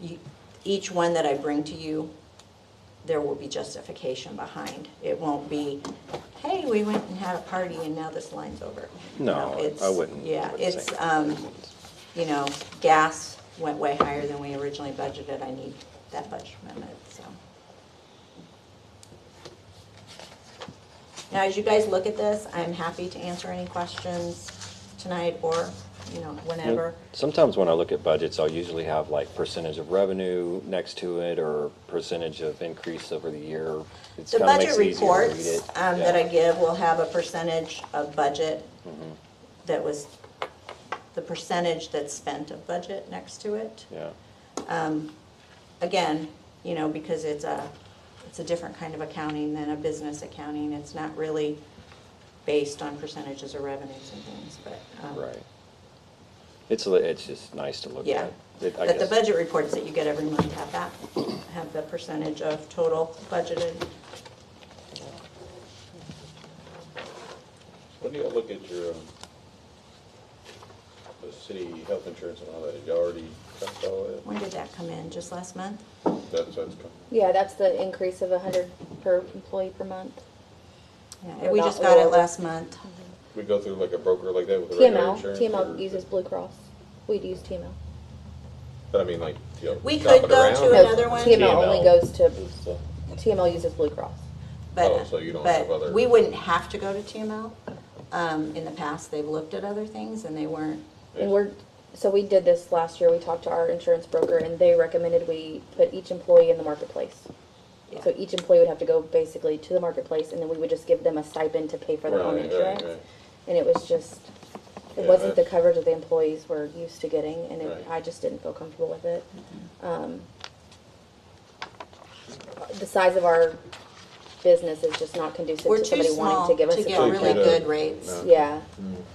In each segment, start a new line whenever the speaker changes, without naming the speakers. you- each one that I bring to you, there will be justification behind. It won't be, hey, we went and had a party and now this line's over. You
No,
know,
I-
it's-
I wouldn't- I
Yeah,
wouldn't
it's,
say.
um, you know, gas went way higher than we originally budgeted. I need that budget amendment, so. Now, as you guys look at this, I'm happy to answer any questions tonight or, you know, whenever.
Mm-hmm. Sometimes when I look at budgets, I'll usually have like percentage of revenue next to it or percentage of increase over the year. It's
The
kinda
budget
makes it easier to read
reports
it.
um,
Yeah. Mm-hmm.
that I give will have a percentage of budget that was, the percentage that's spent of budget next to it.
Yeah,
Again, you know, because it's a, it's a different kind of accounting than a business accounting. It's not really based on percentages of revenues and things, but. um,
right. It's, li- it's just nice to look
Yeah.
at. It- I
But the
guess-
budget reports that you get every month have that, have the percentage of total budgeted.
When do you look at your, um, the city health insurance and all that, you already touched all that?
When did that come in? Just last month?
That's, that's,
Yeah, that's the increase of a hundred per employee per month.
Yeah, We just got it last month.
we go through like a broker like that with the regular
TML,
insurance?
TML
or-
uses Blue Cross. We'd use TML.
But I mean, like, you know,
We
shop
could
it
go
around
to
or-
No,
another one?
TML only
TML.
goes to,
It's, uh,
TML uses Blue Cross.
Oh,
But,
so you don't have
but
other-
we wouldn't have to go to TML. Um, in the past, they've looked at other things and they weren't,
And we're, so we did this last year, we talked to our insurance broker and they recommended we put each employee in the marketplace.
Yeah.
So each employee would have to go basically to the marketplace and then we would just give them a stipend to pay for their own
Right, right,
insurance.
right.
And it was just, it
Yeah,
wasn't the
that's-
coverage that the employees were used to getting and it-
Right.
I just didn't feel comfortable with it. Um, The size of our business is just not conducive
we're
to
too
somebody
small
wanting to give us
to
a
get
So you
really
contract.
could, uh,
good rates.
no.
Yeah,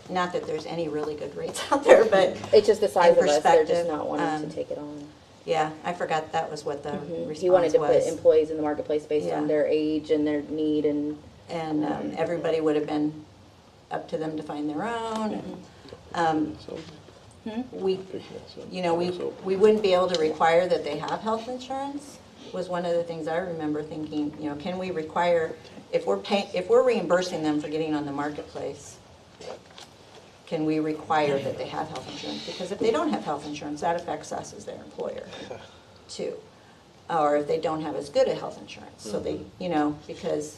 Not that there's any really good rates out there, but,
it's just the size
In
of us, they're
perspective,
just not wanting
um,
to take it on.
yeah, I forgot that was what the
Mhm. He
response
wanted to put
was.
employees in the marketplace based
Yeah.
on their age and their need and,
And, um, everybody would have been up to them to find their own and, um, we, you know, we, we wouldn't be able to require that they have health insurance, was one of the things I remember thinking, you know, can we require, if we're paying, if we're reimbursing them for getting on the marketplace, can we require that they have health insurance? Because if they don't have health insurance, that affects us as their employer, too. Or if they don't have as good a health insurance, so they, you know, because,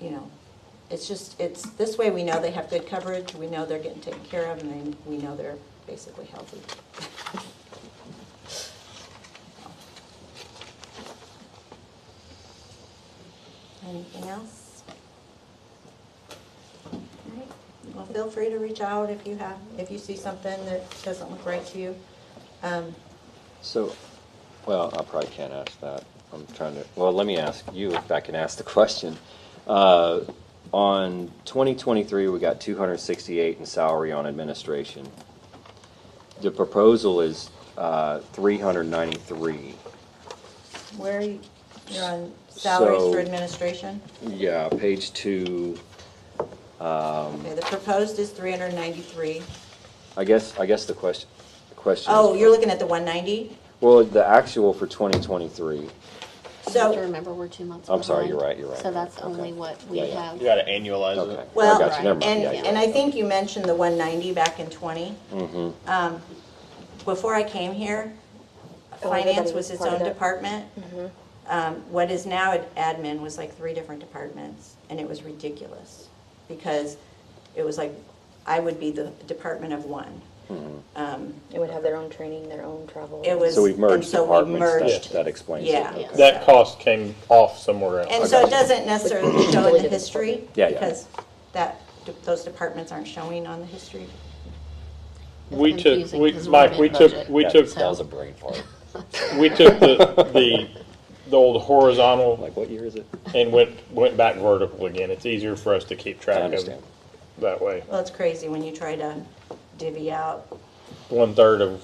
you know, it's just, it's, this way we know they have good coverage, we know they're getting taken care of, and then we know they're basically healthy. Anything else? All right. Well, feel free to reach out if you have, if you see something that doesn't look right to you. Um,
So, well, I probably can't ask that. I'm trying to, well, let me ask you if I can ask the question. Uh, On 2023, we got 268 in salary on administration. The proposal is uh, 393.
Where are you, you're on salaries
So-
for administration?
Yeah, page two.
Okay, the proposed is 393.
I guess, I guess the question, the question.
Oh, you're looking at the 190?
Well, the actual for 2023,
You have to
So,
remember, we're two months
I'm sorry,
behind.
you're right, you're right,
So
you're right.
that's only
Okay.
what we
Yeah, yeah.
have.
You gotta annualize
okay.
it.
I
well,
got you, never mind.
and,
Yeah, you're
and
right.
I think you mentioned the 190 back in 20.
Mhm.
Um, Before I came here,
Oh,
finance
everybody
was
was
its
part of Mm-hmm.
own
that.
department. Um, What is now ad- admin was like three different departments, and it was ridiculous. Because it was like, I would be the department of one. Um,
and would have their own training, their own travel.
It was.
So we've
and
merged
so we
departments,
merged.
that, that explains it.
Yeah.
Okay.
That cost came off somewhere else.
And
I
so it
got you.
doesn't necessarily show in the history,
Yeah, yeah.
because that, those departments aren't showing on the history.
It's
We took,
confusing
we,
'cause we're
Mike, we took,
mid-budget.
we
Yeah,
took,
That was a brain fart.
we took the, the, the old horizontal
Like, what year is it?
and went, went back vertical again. It's easier for us to keep
Uh,
I
track of
understand.
that way.
Well, it's crazy when you try to divvy out.
One third of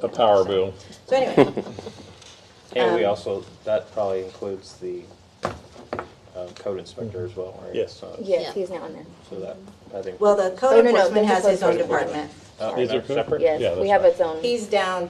a power bill.
So anyway,
And we also, that probably includes the um, code inspector as well, right?
Yes.
So-
Yes, he's now in there.
So that, I think.
well, the
Oh,
code
no, no,
enforcement
that's
has his
the
own
code
department.
Oh,
These are
that's
code-
separate?
Yeah,
Yes, we
that's
have
right.
its own.
He's down